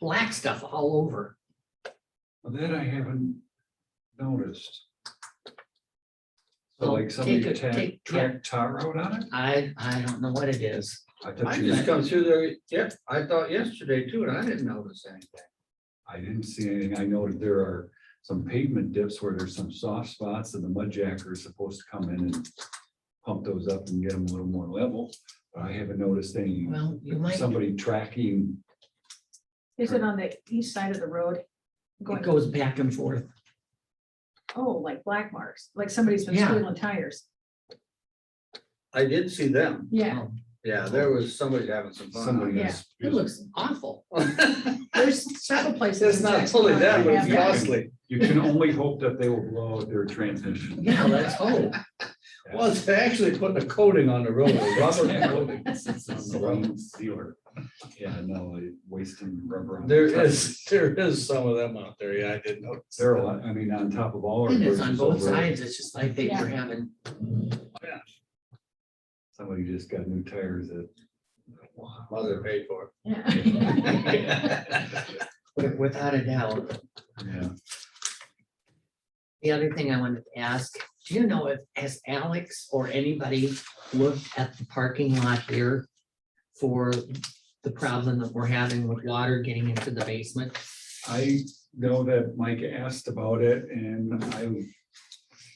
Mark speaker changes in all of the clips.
Speaker 1: black stuff all over.
Speaker 2: Well, That I haven't noticed. So
Speaker 1: So
Speaker 2: like somebody
Speaker 1: Oh, take a-
Speaker 2: tacked,
Speaker 1: take- yeah.
Speaker 2: tracked tar out on it?
Speaker 1: I, I don't know what it is.
Speaker 2: I thought
Speaker 3: I
Speaker 2: you,
Speaker 3: just come through there, yep, I thought yesterday too, and I didn't notice anything.
Speaker 2: I didn't see anything. I noted there are some pavement dips where there's some soft spots and the mud jacker is supposed to come in and pump those up and get them a little more level, but I haven't noticed any,
Speaker 1: Well, you might,
Speaker 2: somebody tracking.
Speaker 4: Is it on the east side of the road?
Speaker 1: it
Speaker 4: Going,
Speaker 1: goes back and forth.
Speaker 4: oh, like black marks, like somebody's been
Speaker 1: Yeah.
Speaker 4: stealing tires.
Speaker 3: I did see them.
Speaker 4: Yeah,
Speaker 1: Oh,
Speaker 3: Yeah, there was somebody having some fun.
Speaker 2: Somebody
Speaker 4: Yeah.
Speaker 2: is.
Speaker 1: It looks awful.
Speaker 4: there's several places.
Speaker 3: It's Oh. not totally that, but it's
Speaker 2: Yeah.
Speaker 3: costly.
Speaker 2: You can only hope that they will blow out their transmission.
Speaker 1: Yeah, let's hope.
Speaker 3: Well, it's actually putting a coating on the road, a rubber coating.
Speaker 2: Blown Sealer. Yeah, no, wasting rubber. on
Speaker 3: There
Speaker 2: trucks.
Speaker 3: is, there is some of them out there. Yeah, I did notice.
Speaker 2: There are a lot, I mean, on top of all. our
Speaker 1: It is on
Speaker 2: bridges
Speaker 1: both
Speaker 2: over,
Speaker 1: sides. It's just like they were having,
Speaker 3: Oh,
Speaker 2: Somebody just got new tires that.
Speaker 3: Mother paid for
Speaker 4: Yeah.
Speaker 3: it.
Speaker 1: wi- without a doubt.
Speaker 2: Yeah,
Speaker 1: The other thing I wanted to ask, do you know if, has Alex or anybody looked at the parking lot there? For the problem that we're having with water getting into the basement?
Speaker 2: I know that Mike asked about it and I, you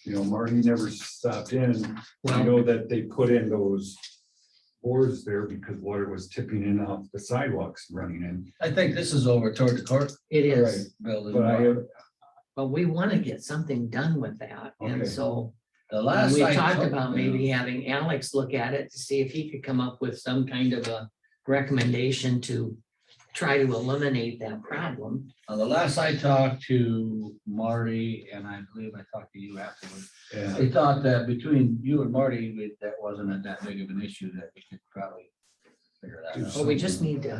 Speaker 2: know, Marty never stopped in. I
Speaker 1: Well,
Speaker 2: know that they put in those boards there because water was tipping in off the sidewalks running in,
Speaker 3: I think this is over toward the court.
Speaker 1: it is,
Speaker 3: Building.
Speaker 2: but I have,
Speaker 1: but we want to get something done with that. And
Speaker 2: Okay.
Speaker 1: so
Speaker 3: The
Speaker 1: and
Speaker 3: last.
Speaker 1: we
Speaker 3: I
Speaker 1: talked
Speaker 3: took-
Speaker 1: about maybe having Alex look at it to see if he could come up with some kind of a recommendation to try to eliminate that problem.
Speaker 3: Uh, The last I talked to Marty, and I believe I talked to you afterwards,
Speaker 2: yeah,
Speaker 3: they thought that between you and Marty, we- that wasn't that big of an issue that we could probably figure that out.
Speaker 1: But we just need to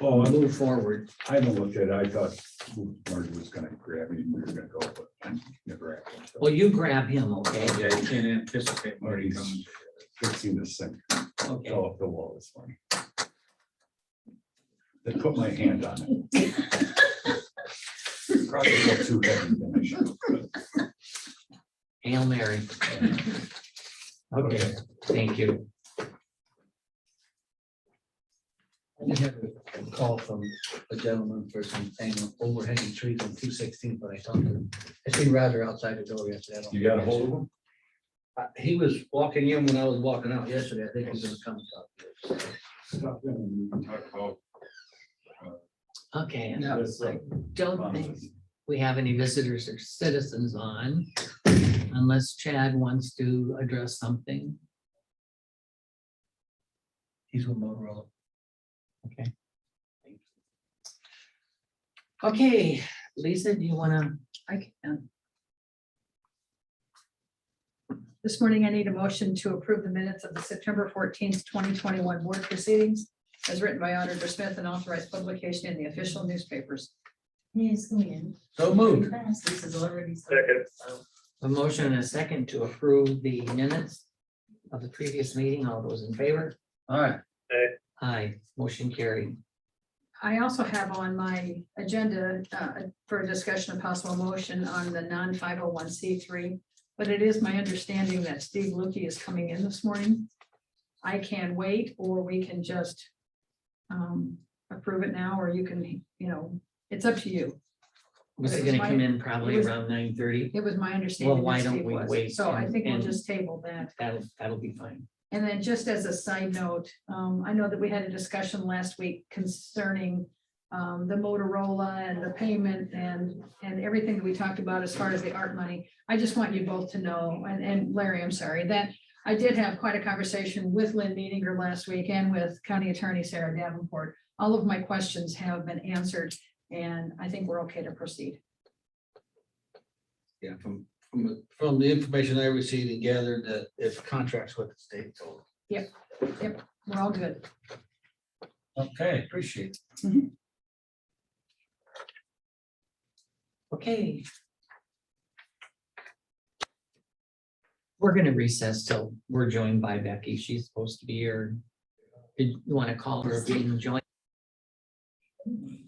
Speaker 2: oh, I
Speaker 1: move forward.
Speaker 2: I haven't looked at it. I thought Marty was gonna grab me, and we were gonna go, but I never happened. So,
Speaker 1: Well, you grab him, okay?
Speaker 3: Yeah, you can't anticipate
Speaker 2: Marty coming. Fixing this thing.
Speaker 1: Okay.
Speaker 2: fell off Oh, the wall this morning. They put my hand on it. Probably a little too heavy than I should have, but,
Speaker 1: Hail Mary. Okay, thank you.
Speaker 3: We had a call from a gentleman for some hanging overhanging trees on two sixteen, but I talked to him. I see Roger outside the door yesterday. I don't-
Speaker 2: You got a hold of them?
Speaker 3: Uh, He was walking in when I was walking out yesterday. I think he's gonna come talk. to us.
Speaker 2: Stop them and talk about
Speaker 1: Okay, and I
Speaker 3: Yeah.
Speaker 2: this, uh,
Speaker 1: don't think
Speaker 2: promises.
Speaker 1: we have any visitors or citizens on unless Chad wants to address something.
Speaker 3: He's with Motorola.
Speaker 1: Okay, Lisa, do you wanna?
Speaker 4: I can. This morning, I need a motion to approve the minutes of the September fourteenth, twenty twenty-one board proceedings as written by Auditor Smith and authorized publication in the official newspapers.
Speaker 5: Yes, go in.
Speaker 3: So moved.
Speaker 5: Fast, This is already. so-
Speaker 1: A motion and a second to approve the minutes of the previous meeting. All those in favor?
Speaker 3: All right.
Speaker 1: Aye, motion carried.
Speaker 4: I also have on my agenda uh, for a discussion of possible motion on the non-five oh one C three. But it is my understanding that Steve Lukey is coming in this morning. I can wait, or we can just um, approve it now, or you can, you know, it's up to you.
Speaker 1: Was
Speaker 4: It
Speaker 1: it
Speaker 4: was
Speaker 1: gonna come
Speaker 4: my-
Speaker 1: in probably
Speaker 4: it was-
Speaker 1: around nine thirty?
Speaker 4: It was my understanding
Speaker 1: why
Speaker 4: that
Speaker 1: don't
Speaker 4: Steve
Speaker 1: we wait
Speaker 4: was, so I
Speaker 1: and-
Speaker 4: think we'll
Speaker 1: and-
Speaker 4: just table that.
Speaker 1: That'll, that'll be fine.
Speaker 4: And then just as a side note, um, I know that we had a discussion last week concerning um, the Motorola and the payment and, and everything that we talked about as far as the art money. I just want you both to know, and, and Larry, I'm sorry, that I did have quite a conversation with Lynn Meeninger last week and with County Attorney Sarah Davenport. All of my questions have been answered and I think we're okay to proceed.
Speaker 3: Yeah, from, from, the- from the information I received and gathered that it's contracts with the state. so-
Speaker 4: We're all good.
Speaker 3: Okay, appreciate it.
Speaker 1: Okay. We're gonna recess till we're joined by Becky. She's supposed to be here. Did you wanna call her if you can join?